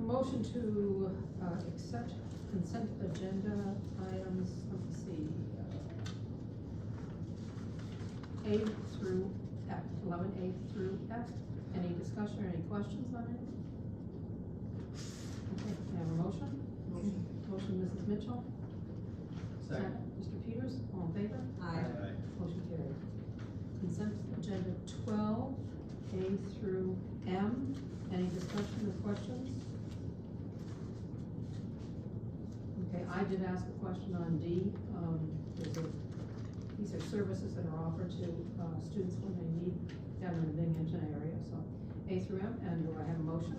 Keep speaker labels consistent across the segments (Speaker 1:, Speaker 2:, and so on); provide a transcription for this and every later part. Speaker 1: Motion to, uh, accept consent agenda items, let's see. uh, A through F, eleven A through F. Any discussion or any questions on it? Okay, can I have a motion?
Speaker 2: Motion.
Speaker 1: Motion, Mrs. Mitchell?
Speaker 3: Second.
Speaker 1: Mr. Peters, all in favor?
Speaker 2: Aye.
Speaker 1: Motion carried. Consent agenda twelve, A through M. Any discussion or questions? Okay, I did ask a question on D. Um, there's a, these are services that are offered to, uh, students when they need down in the Binghamton area, so. A through M, and do I have a motion?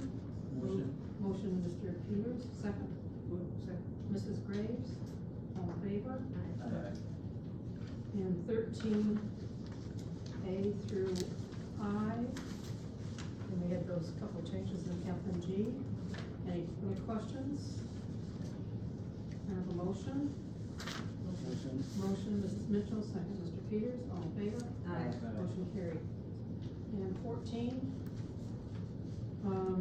Speaker 3: Motion.
Speaker 1: Motion, Mr. Peters, second? Second. Mrs. Graves, all in favor? And thirteen A through I, and we had those couple changes in F and G. Any, any questions? Can I have a motion?
Speaker 3: Motion.
Speaker 1: Motion, Mrs. Mitchell, second, Mr. Peters, all in favor?
Speaker 2: Aye.
Speaker 1: Motion carried. And fourteen, um,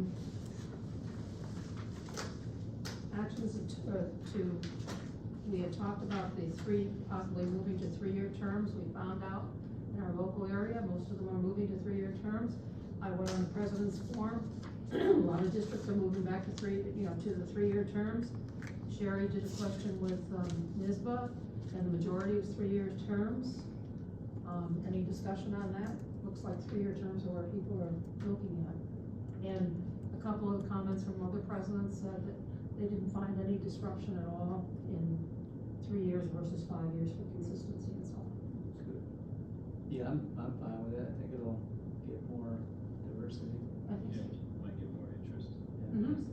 Speaker 1: actions to, uh, to, we had talked about the three, possibly moving to three-year terms, we found out in our local area, most of them are moving to three-year terms. I went on the president's forum, a lot of districts are moving back to three, you know, to the three-year terms. Sherry did a question with, um, NISBA, and the majority was three-year terms. Um, any discussion on that? Looks like three-year terms are what people are looking at. And a couple of comments from other presidents said that they didn't find any disruption at all in three years versus five years for consistency and so on.
Speaker 3: Yeah, I'm, I'm fine with that, I think it'll get more diversity.
Speaker 1: I think so.
Speaker 4: Might get more interest.
Speaker 1: Mhm.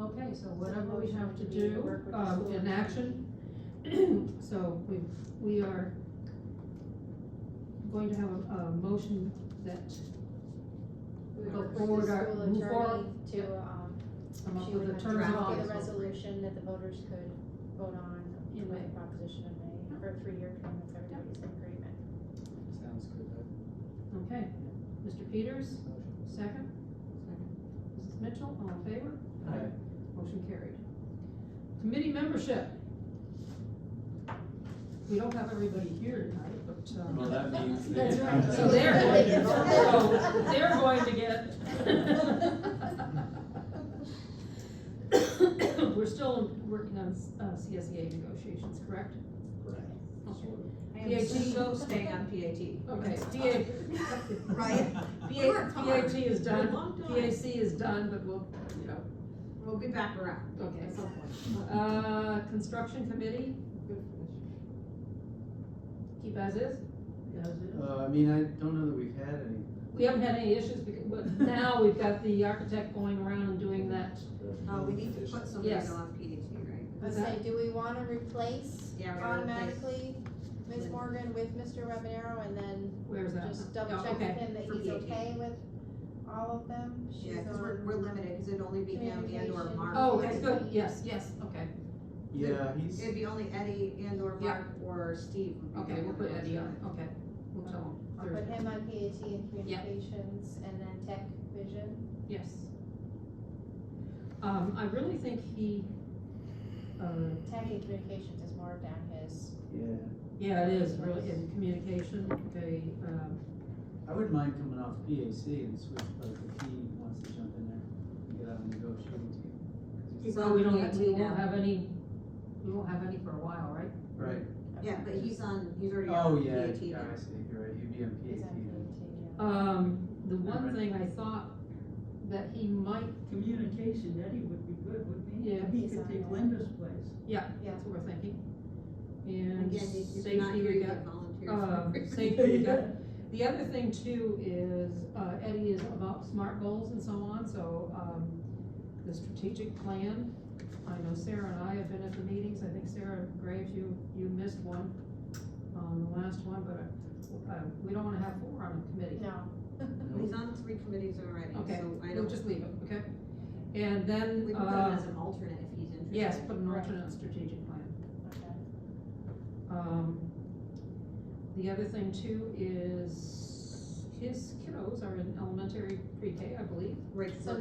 Speaker 1: Okay, so whatever we have to
Speaker 2: Motion to
Speaker 1: do,
Speaker 2: work with the
Speaker 1: um,
Speaker 2: school.
Speaker 1: in action, so we, we are going to have a, a motion that,
Speaker 5: We
Speaker 1: Go
Speaker 5: would
Speaker 1: forward
Speaker 5: refer
Speaker 1: our-
Speaker 5: the
Speaker 1: move
Speaker 5: school attorney
Speaker 1: forward.
Speaker 5: to, um,
Speaker 1: come up
Speaker 5: she
Speaker 1: with
Speaker 5: would
Speaker 1: the terms of
Speaker 5: draft a
Speaker 1: office.
Speaker 5: resolution that the voters could vote on
Speaker 1: In
Speaker 5: with
Speaker 1: May.
Speaker 5: proposition in May for a three-year term if everybody's in agreement.
Speaker 3: Sounds good.
Speaker 1: Okay, Mr. Peters,
Speaker 3: Motion.
Speaker 1: second? Mrs. Mitchell, all in favor?
Speaker 3: Aye.
Speaker 1: Motion carried. Committee membership. We don't have everybody here tonight, but, um.
Speaker 3: Well, that means.
Speaker 5: That's right.
Speaker 1: So they're, going to- so
Speaker 2: Yes.
Speaker 1: they're going to get. We're still working on uh, CSEA negotiations, correct? PAT,
Speaker 2: so
Speaker 1: staying on PAT. Okay, PA.
Speaker 2: Right. We worked hard.
Speaker 1: PAT is
Speaker 2: Been a
Speaker 1: done,
Speaker 2: long time.
Speaker 1: PAC is done, but we'll, you know,
Speaker 2: We'll be back around.
Speaker 1: okay, at some point. Uh, construction committee, keep as is?
Speaker 3: Uh, I mean, I don't know that we've had any.
Speaker 1: We haven't had any issues, because- but now we've got the architect going around and doing that.
Speaker 2: Uh, we need to put something
Speaker 1: Yes.
Speaker 2: on PhD, right?
Speaker 5: Let's
Speaker 1: Is that-
Speaker 5: say, do we wanna replace
Speaker 2: Yeah, we're gonna replace-
Speaker 5: automatically Ms. Morgan with Mr. Webanero and then
Speaker 1: Where's that?
Speaker 5: just double
Speaker 1: Oh,
Speaker 5: check with
Speaker 1: okay.
Speaker 5: him that
Speaker 2: for
Speaker 5: he's
Speaker 2: PhD.
Speaker 5: okay with all of them? She's
Speaker 2: Yeah, cause we're,
Speaker 5: on-
Speaker 2: we're limited, cause it'd only be him and or
Speaker 5: Communication.
Speaker 2: Mark.
Speaker 1: Oh, okay, good, yes, yes, okay,
Speaker 3: Yeah, he's,
Speaker 2: It'd be only Eddie and or Mark or Steve. would be
Speaker 1: okay, we'll put
Speaker 2: available
Speaker 1: Eddie
Speaker 2: to
Speaker 1: on, okay. We'll tell him.
Speaker 5: I'll put him on PAT and communications and then tech vision.
Speaker 1: Yes. Um, I really think he, uh,
Speaker 5: Tech and communications is more down his,
Speaker 3: yeah,
Speaker 1: yeah, it is really in communication, okay, um,
Speaker 3: I wouldn't mind coming off PAC and switch, like, if he wants to jump in there and get out and negotiate.
Speaker 2: He's
Speaker 1: so
Speaker 2: on
Speaker 1: we don't, have- we
Speaker 2: PAT now.
Speaker 1: won't have any, we won't have any for a while, right?
Speaker 3: Right,
Speaker 2: Yeah, but he's on, he's already
Speaker 3: oh,
Speaker 2: on
Speaker 3: yeah,
Speaker 2: PhD.
Speaker 3: yeah, I see, you're right, you'd be on
Speaker 5: he's
Speaker 3: PAT. then.
Speaker 5: on PAT,
Speaker 1: Um, the one thing I thought that he might,
Speaker 6: Communication, Eddie would be good, wouldn't he?
Speaker 1: Yeah.
Speaker 6: He could take Linda's place.
Speaker 1: yeah,
Speaker 5: Yeah.
Speaker 1: that's what we're thinking. And
Speaker 2: Again, if you're not
Speaker 1: safety,
Speaker 2: here,
Speaker 1: we
Speaker 2: you
Speaker 1: got,
Speaker 2: get volunteers.
Speaker 1: um, safety, we got The other thing too is, uh, Eddie is about SMART goals and so on, so, um, the strategic plan, I know Sarah and I have been at the meetings, I think Sarah Graves, you, you missed one, um, the last one, but, uh, we don't wanna have four on a committee.
Speaker 5: yeah. No,
Speaker 2: He's on three committees already,
Speaker 1: Okay,
Speaker 2: so I
Speaker 1: We'll
Speaker 2: don't,
Speaker 1: just leave it, okay? And then,
Speaker 2: we can put him
Speaker 1: uh,
Speaker 2: as an alternate if he's interested.
Speaker 1: yes, put an alternate strategic plan.
Speaker 5: okay.
Speaker 1: Um, the other thing too is, his kiddos are in elementary pre-K, I believe.
Speaker 2: Rich
Speaker 5: So